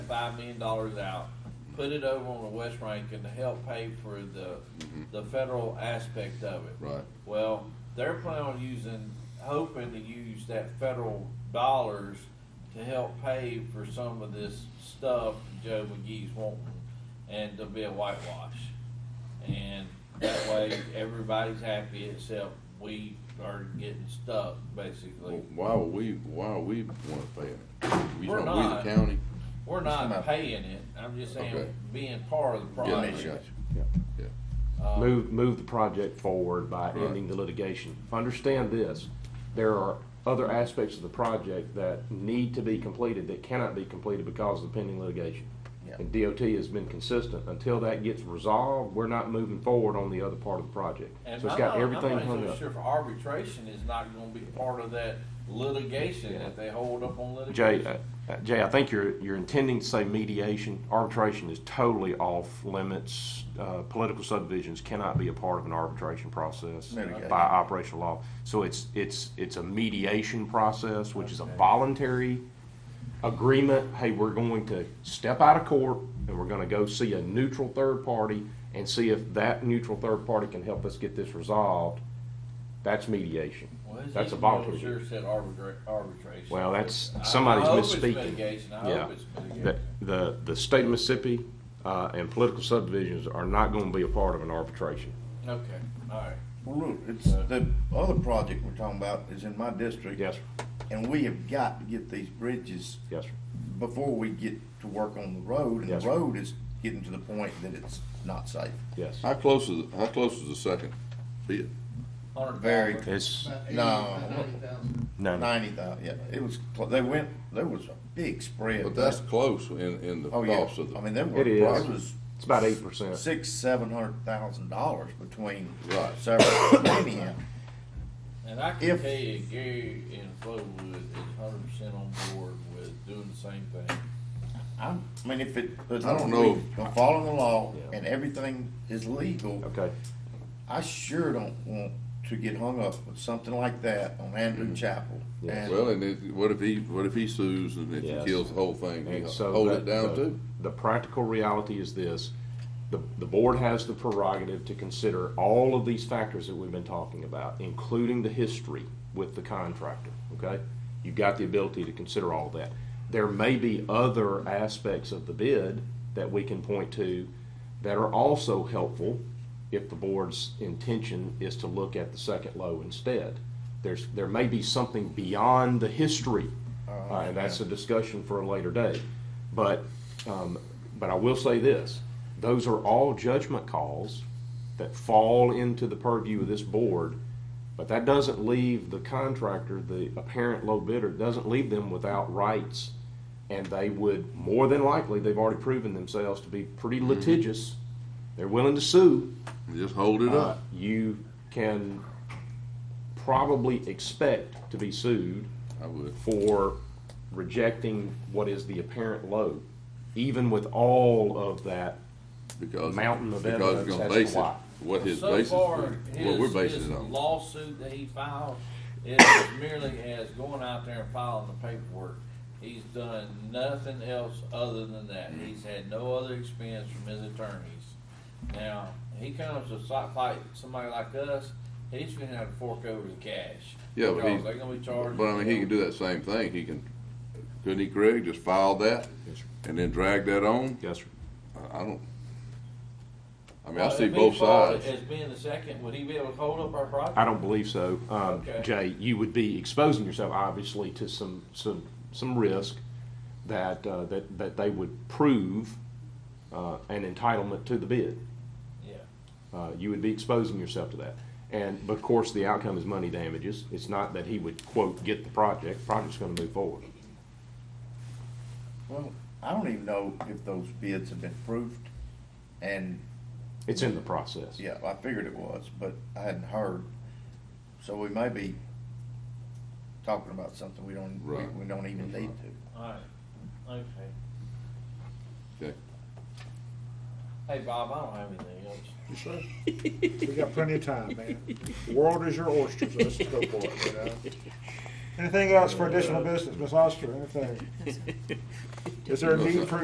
five million dollars out, put it over on the West Rankin to help pay for the, Mm-hmm. the federal aspect of it. Right. Well, they're planning on using, hoping to use that federal dollars to help pay for some of this stuff Joe McGee's wanting, and to be a whitewash. And that way, everybody's happy except we are getting stuck, basically. Well, Why would we, why are we wanna pay it? You We're know, not. We the county? We're Somebody- not paying it, I'm just Okay. saying, being part of the Yeah, I got you. project. Yeah. Yeah. Uh, Move, move the project forward by Right. ending the litigation. Understand this, there are other aspects of the project that need to be completed that cannot be completed because of the pending litigation. Yeah. And DOT has been consistent. Until that gets resolved, we're not moving forward on the other part of the project. And So it's I'm got not- everything I'm not hung even up. sure if arbitration is not gonna be part of that litigation that they hold up on litigation. Jay, uh, uh, Jay, I think you're, you're intending to say mediation. Arbitration is totally off limits. Uh, Political subdivisions cannot be a part of an arbitration process Litigation. by operational law. So it's, it's, it's a mediation process, which is a voluntary agreement. Hey, we're going to step out of court and we're gonna go see a neutral third party and see if that neutral third party can help us get this resolved. That's mediation. Well, his That's a email voluntary. Sure said arbitra- arbitration. Well, that's, I- I somebody's hope it's misspeaking. mitigation. I Yeah. hope it's mitigation. The- The, the state of Mississippi, uh, and political subdivisions are not gonna be a part of an arbitration. Okay, alright. Well, look, it's, the other project we're talking about is in my district. Uh, Yes, sir. And we have got to get these bridges Yes, sir. before we get to work on the road. And Yes, sir. the road is getting to the point that it's not safe. Yes. How close is, how close is the second bid? Hundred Very dollars. It's, No, no, ninety thousand, yeah, it was, clo- they went, there was a big spread. But that's close in, in the Oh, yeah, cost of the. I mean, there were, It it is. was it's about eight percent. six, seven hundred thousand dollars between Right. several, anyhow. And I can If- tell you, Gary in Flowood is hundred percent on board with doing the same thing. I'm, I mean, if it, I don't know. I'm following the law Yeah. and everything is legal, Okay, I sure don't want to get hung up with something like that on Andrew Chapel. Yes. And- Mm. Well, and it, what if he, what if he sues and if he Yes. kills the whole thing, he and so. hold it that- down the- too? The practical reality is this, the, the board has the prerogative to consider all of these factors that we've been talking about, including the history with the contractor, okay? You've got the ability to consider all of that. There may be other aspects of the bid that we can point to that are also helpful if the board's intention is to look at the second low instead. There's, there may be something beyond the history, uh, and that's a discussion for a later day. But, um, but I will say this, those are all judgment calls that fall into the purview of this board, but that doesn't leave the contractor, the apparent low bidder, doesn't leave them without rights. And they would, more than likely, they've already proven themselves to be pretty litigious. They're willing to sue. Just hold it Uh, up. You can probably expect to be sued I would. for rejecting what is the apparent low, even with all of that. Because. Mountain of because we're evidence gonna as to base it- why. What his So basis, far, what we're his, his basing it on. lawsuit that he filed is merely as going out there and filing the paperwork. He's done nothing else other than that. Mm-hmm. He's had no other expense from his attorneys. Now, he comes to so- fight somebody like us, he's gonna have to fork over the cash. Yeah, but Because he- They're gonna be charged. But I mean, he can do that same thing. He can, couldn't he, Craig, just file that Yes, sir. and then drag that on? Yes, sir. I- I don't. I mean, I Well, see if he both filed it As sides. being the second, would he be able to hold up our project? I don't believe so. Um, Okay. Jay, you would be exposing yourself obviously to some, some, some risk that, uh, that, that they would prove, uh, an entitlement to the bid. Yeah. Uh, you would be exposing yourself to that. And, but of course, the outcome is money damages. It's not that he would quote, get the project. Project's gonna move forward. Well, I don't even know if those bids have been proofed, and, It's in the process. yeah, I figured it was, but I hadn't heard. So we may be talking about something we don't, we- Right. we don't even need to. All right, okay. Okay. Hey, Bob, I don't have anything else. We got plenty of time, man. The world is your oyster, so let's just go for it, you know? Anything else for additional business, Ms. Oster, anything? Is there a need for